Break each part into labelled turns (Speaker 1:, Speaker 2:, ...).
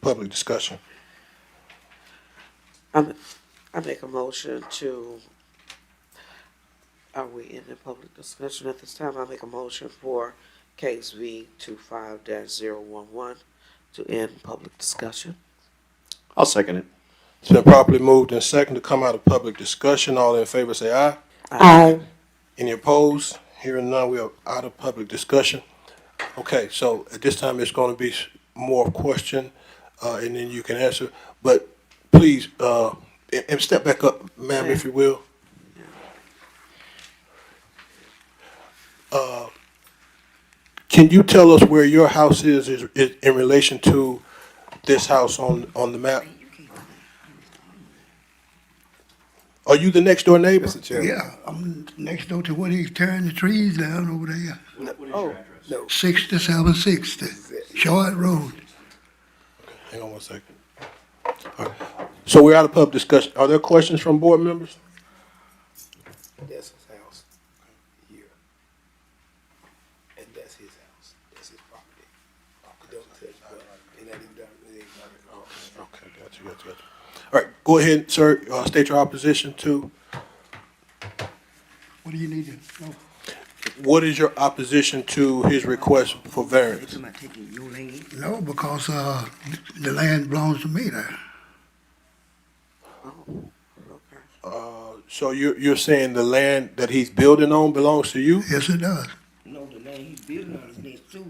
Speaker 1: public discussion.
Speaker 2: I'm, I make a motion to, are we in the public discussion at this time? I make a motion for case V two five dash zero one one to end public discussion.
Speaker 3: I'll second it.
Speaker 1: It's been properly moved and second to come out of public discussion. All in favor say aye.
Speaker 4: Aye.
Speaker 1: Any opposed? Hearing none, we are out of public discussion. Okay, so at this time, it's gonna be s- more question, uh, and then you can answer. But please, uh, and, and step back up, ma'am, if you will. Uh, Can you tell us where your house is, is, is in relation to this house on, on the map? Are you the next door neighbor?
Speaker 5: Mr. Chairman.
Speaker 6: Yeah, I'm next door to where he's tearing the trees down over there.
Speaker 5: oh,
Speaker 6: Sixty-seven sixty, Short Road.
Speaker 1: Hang on one second. All right. So we're out of pub discussion. Are there questions from board members?
Speaker 5: That's his house here. And that's his house. That's his property. Don't touch that. And that ain't done- it ain't done at all.
Speaker 1: Okay, got you, got you, got you. All right, go ahead, sir. Uh, state your opposition to,
Speaker 6: What do you need to know?
Speaker 1: what is your opposition to his request for variance?
Speaker 7: Am I taking your land?
Speaker 6: No, because, uh, the land belongs to me there.
Speaker 2: Oh, Okay.
Speaker 1: Uh, so you're, you're saying the land that he's building on belongs to you?
Speaker 6: Yes, it does.
Speaker 7: No, the land he's building on is next to.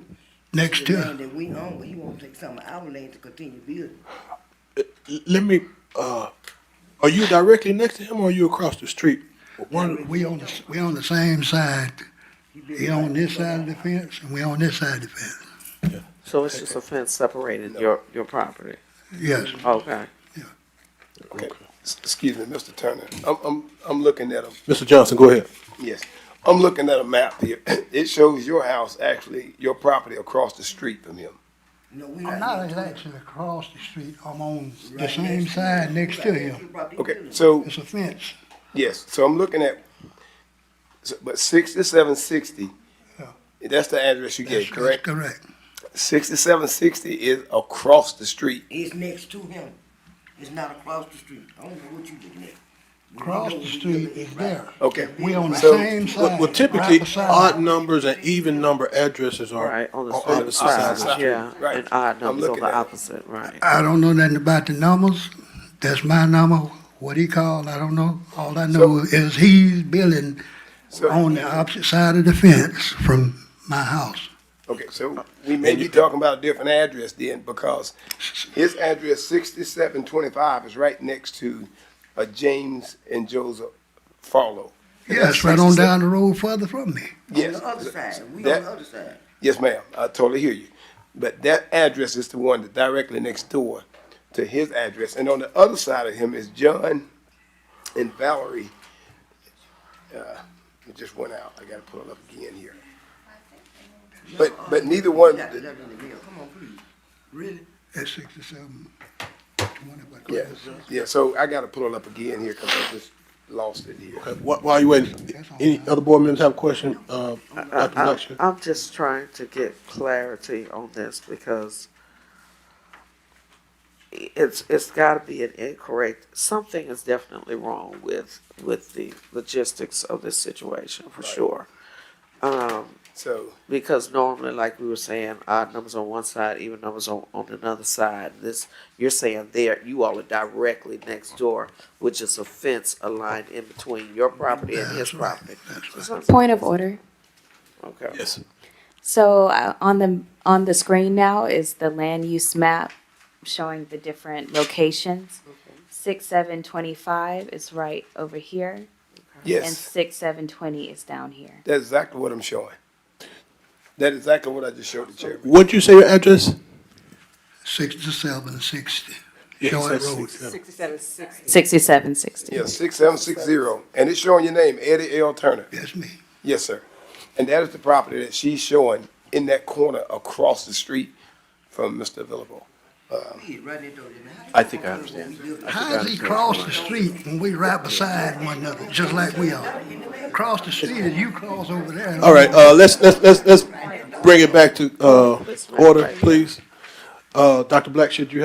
Speaker 6: Next
Speaker 7: The land
Speaker 6: to,
Speaker 7: that we own, but he won't take some of our land to continue building.
Speaker 1: L- Let me, uh, are you directly next to him or are you across the street?
Speaker 6: one, we on, the- we on the same side.
Speaker 7: building
Speaker 6: He on
Speaker 7: right
Speaker 6: this
Speaker 7: next
Speaker 6: side
Speaker 7: door.
Speaker 6: of the fence, and we on this side of the fence.
Speaker 2: So it's just a fence separating your, your property?
Speaker 6: Yes,
Speaker 2: Okay.
Speaker 5: Okay. S- Excuse me, Mr. Turner.
Speaker 6: Mm-hmm.
Speaker 5: I'm, I'm, I'm looking at a,
Speaker 1: Mr. Johnson, go ahead.
Speaker 5: yes, I'm looking at a map here. It shows your house, actually, your property across the street from him.
Speaker 7: No, we
Speaker 6: I'm
Speaker 7: not.
Speaker 6: Oh, not
Speaker 7: next-
Speaker 6: actually across the street, I'm on the
Speaker 7: right
Speaker 6: same
Speaker 7: next
Speaker 6: side next to
Speaker 7: right
Speaker 6: him.
Speaker 7: the property
Speaker 5: Okay,
Speaker 7: building.
Speaker 5: so,
Speaker 6: It's a fence.
Speaker 5: yes, so I'm looking at, so- but sixty-seven sixty,
Speaker 6: Yeah.
Speaker 5: that's the address you
Speaker 6: That's-
Speaker 5: gave,
Speaker 6: that's
Speaker 5: correct?
Speaker 6: Correct.
Speaker 5: Sixty-seven sixty is across the street.
Speaker 7: It's next to him. It's not across the street. I don't know what you looking at. We
Speaker 6: Across
Speaker 7: know
Speaker 6: the
Speaker 7: we
Speaker 6: street
Speaker 7: looking at
Speaker 6: is
Speaker 7: right-
Speaker 6: there.
Speaker 5: Okay.
Speaker 6: We on the
Speaker 5: So,
Speaker 6: same
Speaker 1: Well,
Speaker 6: side.
Speaker 1: well,
Speaker 6: right
Speaker 1: typically,
Speaker 6: beside.
Speaker 1: odd numbers and even number addresses are
Speaker 2: Right, on the
Speaker 1: on opposite
Speaker 2: same
Speaker 1: sides of the
Speaker 2: side,
Speaker 1: street.
Speaker 2: yeah,
Speaker 5: Right.
Speaker 2: and odd
Speaker 5: I'm
Speaker 2: numbers on
Speaker 5: looking at
Speaker 2: the
Speaker 5: it.
Speaker 2: opposite, right.
Speaker 6: I don't know nothing about the numbers. That's my number. What he called, I don't know. All I know is he's building
Speaker 5: So-
Speaker 6: on the opposite side of the fence from my house.
Speaker 5: Okay,
Speaker 7: Uh,
Speaker 5: so we may be talking about a different address then, because his address sixty-seven twenty-five is right next to uh, James and Joseph Farlow.
Speaker 6: Yes, right on down the road further from me.
Speaker 7: On
Speaker 5: Yes,
Speaker 7: the other side. We on the
Speaker 5: that,
Speaker 7: other side.
Speaker 5: yes, ma'am, I totally hear you. But that address is the one that directly next door to his address, and on the other side of him is John and Valerie. Uh, It just went out, I gotta pull it up again here. But, but neither one,
Speaker 7: uh, Got that in the mail. Come on, please. Really?
Speaker 6: At sixty-seven twenty, but.
Speaker 5: Yeah, yeah, so I gotta pull it up again here, cause I just lost it here.
Speaker 1: Okay, wh- While you waiting, any other board members have a question, uh, Dr.
Speaker 2: I-
Speaker 1: Blackshear?
Speaker 2: I'm just trying to get clarity on this because it's, it's gotta be an incorrect, something is definitely wrong with, with the logistics of this situation, for sure. Um,
Speaker 5: So,
Speaker 2: because normally, like we were saying, odd numbers on one side, even numbers on, on another side, this, you're saying there, you all are directly next door, which is a fence aligned in between your property and his
Speaker 6: That's right,
Speaker 2: property.
Speaker 6: that's right.
Speaker 2: Sounds-
Speaker 4: Point of order.
Speaker 2: Okay.
Speaker 1: Yes.
Speaker 4: So uh, on the, on the screen now is the land use map showing the different locations. Six seven twenty-five is right over here, and
Speaker 5: yes,
Speaker 4: six seven twenty is down here.
Speaker 5: that's exactly what I'm showing. That's exactly what I just showed the chairman.
Speaker 1: What'd you say your address?
Speaker 6: Sixty-seven sixty,
Speaker 1: Yeah, he
Speaker 6: Short
Speaker 1: said
Speaker 6: Road.
Speaker 1: six,
Speaker 4: Sixty-seven sixty.
Speaker 5: Yeah, six seven six zero, and it's showing your name, Eddie L. Turner.
Speaker 6: That's me.
Speaker 5: Yes, sir. And that is the property that she's showing in that corner across the street from Mr. Villable.
Speaker 7: He right there, though. How do
Speaker 3: I
Speaker 7: you
Speaker 3: think
Speaker 7: know
Speaker 3: I
Speaker 7: what we
Speaker 3: understand.
Speaker 7: looking at?
Speaker 6: How does he cross the street when we right beside one another, just like we are? Cross the street and you cross over there. and
Speaker 1: All right, uh, let's, let's, let's, let's bring it back to, uh, order, please. Uh, Dr. Blackshear, do you have